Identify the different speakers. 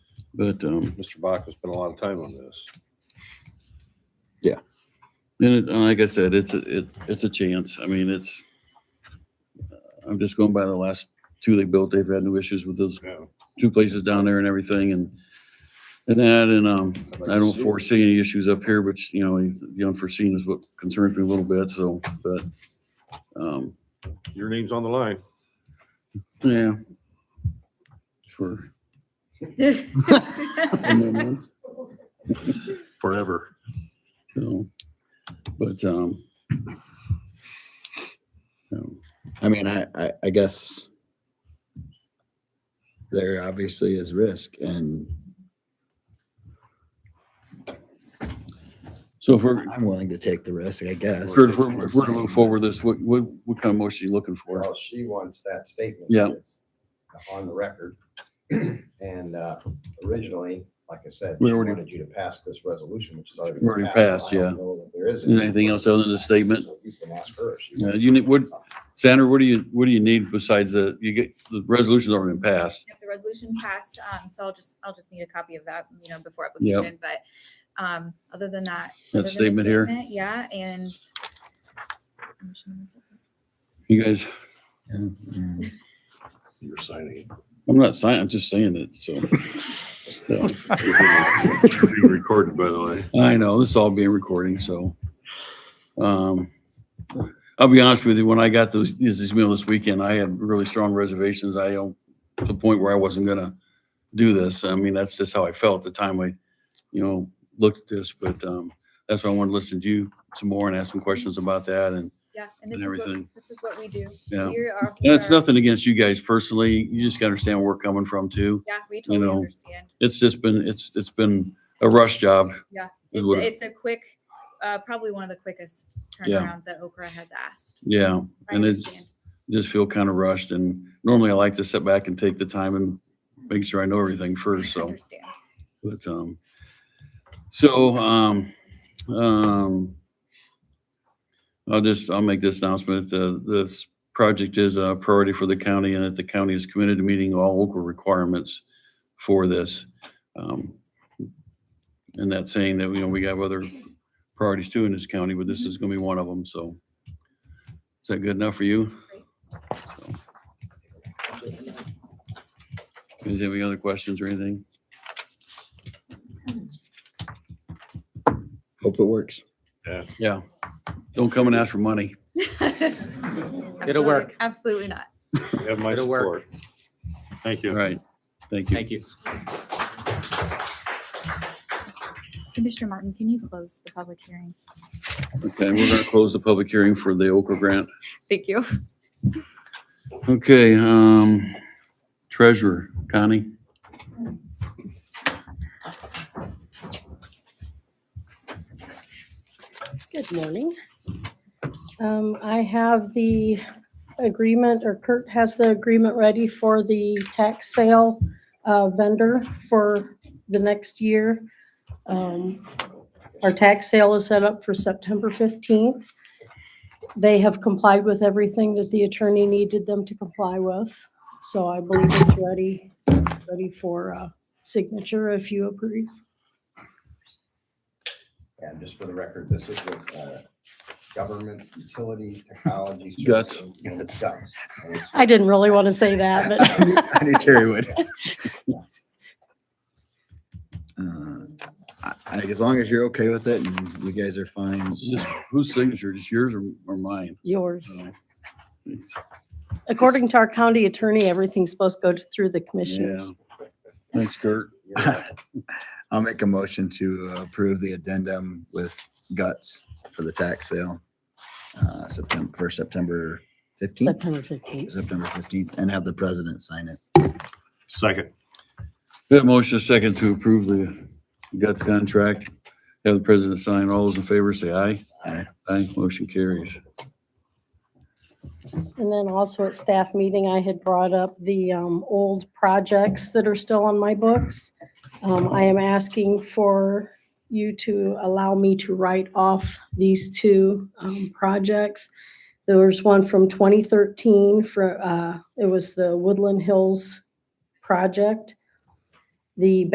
Speaker 1: But, um,
Speaker 2: Mr. Bach has spent a lot of time on this.
Speaker 1: and it, and like I said, it's, a- it, it's a chance. I mean, it's, I'm just going by the last two they built. They've had no issues with those
Speaker 2: Yeah.
Speaker 1: two places down there and everything and, and that, and, um,
Speaker 2: I'd like
Speaker 1: I
Speaker 2: to
Speaker 1: don't
Speaker 2: see it.
Speaker 1: foresee any issues up here, which, you know, is- the unforeseen is what concerns me a little bit, so, but, um,
Speaker 2: Your name's on the line.
Speaker 1: yeah. For. ten more months.
Speaker 2: Forever.
Speaker 1: So, but, um, um,
Speaker 3: I mean, I, I, I guess there obviously is risk and
Speaker 1: so if we're,
Speaker 3: I'm willing to take the risk, I guess.
Speaker 1: if we're, if we're if we're to move forward this, what, what, what kind of motion are you looking for?
Speaker 4: Well, she wants that statement.
Speaker 1: Yeah.
Speaker 4: that's On the record. And uh, originally, like I said,
Speaker 1: We
Speaker 4: she
Speaker 1: already-
Speaker 4: wanted you to pass this resolution, which is already. been
Speaker 1: Already passed,
Speaker 4: I don't
Speaker 1: yeah.
Speaker 4: know that There is.
Speaker 1: Is there anything else other than the statement?
Speaker 4: So You can ask her if she.
Speaker 1: Yeah,
Speaker 4: wants
Speaker 1: you
Speaker 4: to.
Speaker 1: need- what- Sandra, what do you, what do you need besides the, you get, the resolution's already been passed.
Speaker 5: Yep, the resolution passed, um, so I'll just, I'll just need a copy of that, you know, before application, but, um, other than that. other than
Speaker 1: That
Speaker 5: the
Speaker 1: statement here.
Speaker 5: Yeah, and.
Speaker 1: You guys,
Speaker 3: Mm.
Speaker 2: You're signing.
Speaker 1: I'm not saying, I'm just saying it, so. So,
Speaker 2: It's being Recorded, by the way.
Speaker 1: I know, this is all being recording, so. Um, I'll be honest with you, when I got those, this email this weekend, I had really strong reservations. I, um, to the point where I wasn't gonna do this. I mean, that's just how I felt at the time I, you know, looked at this, but, um, that's why I wanted to listen to you some more and ask some questions about that and,
Speaker 5: Yeah, and
Speaker 1: And
Speaker 5: this is what,
Speaker 1: everything.
Speaker 5: this is what we do.
Speaker 1: yeah.
Speaker 5: We are- we
Speaker 1: And it's
Speaker 5: are-
Speaker 1: nothing against you guys personally. You just gotta understand where we're coming from too.
Speaker 5: Yeah, we
Speaker 1: you
Speaker 5: totally
Speaker 1: know,
Speaker 5: understand.
Speaker 1: It's just been, it's, it's been a rush job.
Speaker 5: Yeah,
Speaker 1: is
Speaker 5: It's,
Speaker 1: what it-
Speaker 5: a- it's a quick, uh, probably one of the quickest
Speaker 1: Yeah.
Speaker 5: turnarounds that Okra has asked. so
Speaker 1: Yeah.
Speaker 5: I
Speaker 1: and it's-
Speaker 5: understand.
Speaker 1: just feel kind of rushed and normally I like to sit back and take the time and make sure I know everything
Speaker 5: I
Speaker 1: first, so,
Speaker 5: understand.
Speaker 1: but, um, so, um, um, I'll just, I'll make this announcement. The, this project is a priority for the county and that the county is committed to meeting all local requirements for this. Um, And that's saying that, you know, we have other priorities too in this county, but this is gonna be one of them, so. Is that good enough for you? Is there any other questions or anything?
Speaker 3: Hope it works.
Speaker 1: Yeah. Don't come and ask for money.
Speaker 5: Absolutely-
Speaker 6: work.
Speaker 5: Absolutely not.
Speaker 2: You have my
Speaker 6: It'll
Speaker 2: support.
Speaker 6: work.
Speaker 1: All
Speaker 2: Thank you.
Speaker 1: right. Thank you.
Speaker 6: Thank you.
Speaker 5: Commissioner Martin, can you close the public hearing?
Speaker 1: Okay, we're going to close the public hearing for the Okra grant.
Speaker 5: Thank you.
Speaker 1: Okay, um, treasurer, Connie?
Speaker 7: Good morning. Um, I have the agreement, or Kurt has the agreement ready for the tax sale uh, vendor for the next year. Um, Our tax sale is set up for September 15th. They have complied with everything that the attorney needed them to comply with. So I believe it's ready, ready for uh, signature if you approve.
Speaker 4: And just for the record, this is with uh, Government Utilities Technology.
Speaker 1: Guts.
Speaker 4: Services, you know, Guts. And it's-
Speaker 7: I didn't really want to say that, but.
Speaker 3: I knew- I knew Terry would. Uh, I, I- as long as you're okay with it and you guys are fine.
Speaker 1: This is just- Whose signature, just yours or, or mine?
Speaker 7: Yours.
Speaker 1: Oh, thanks.
Speaker 7: According to our county attorney, everything's supposed to go t- through the commissioners.
Speaker 1: Thanks, Kurt.
Speaker 3: I'll make a motion to approve the addendum with guts for the tax sale. Uh, September, for September fifteenth,
Speaker 7: September 15th.
Speaker 3: September fifteenth, and have the president sign it.
Speaker 2: Second.
Speaker 1: That motion is second to approve the guts contract. Have the president sign. All those in favor say aye.
Speaker 3: Aye.
Speaker 1: Aye, motion carries.
Speaker 7: And then also at staff meeting, I had brought up the um, old projects that are still on my books. Um, I am asking for you to allow me to write off these two um, projects. There was one from 2013 for, uh, it was the Woodland Hills project. The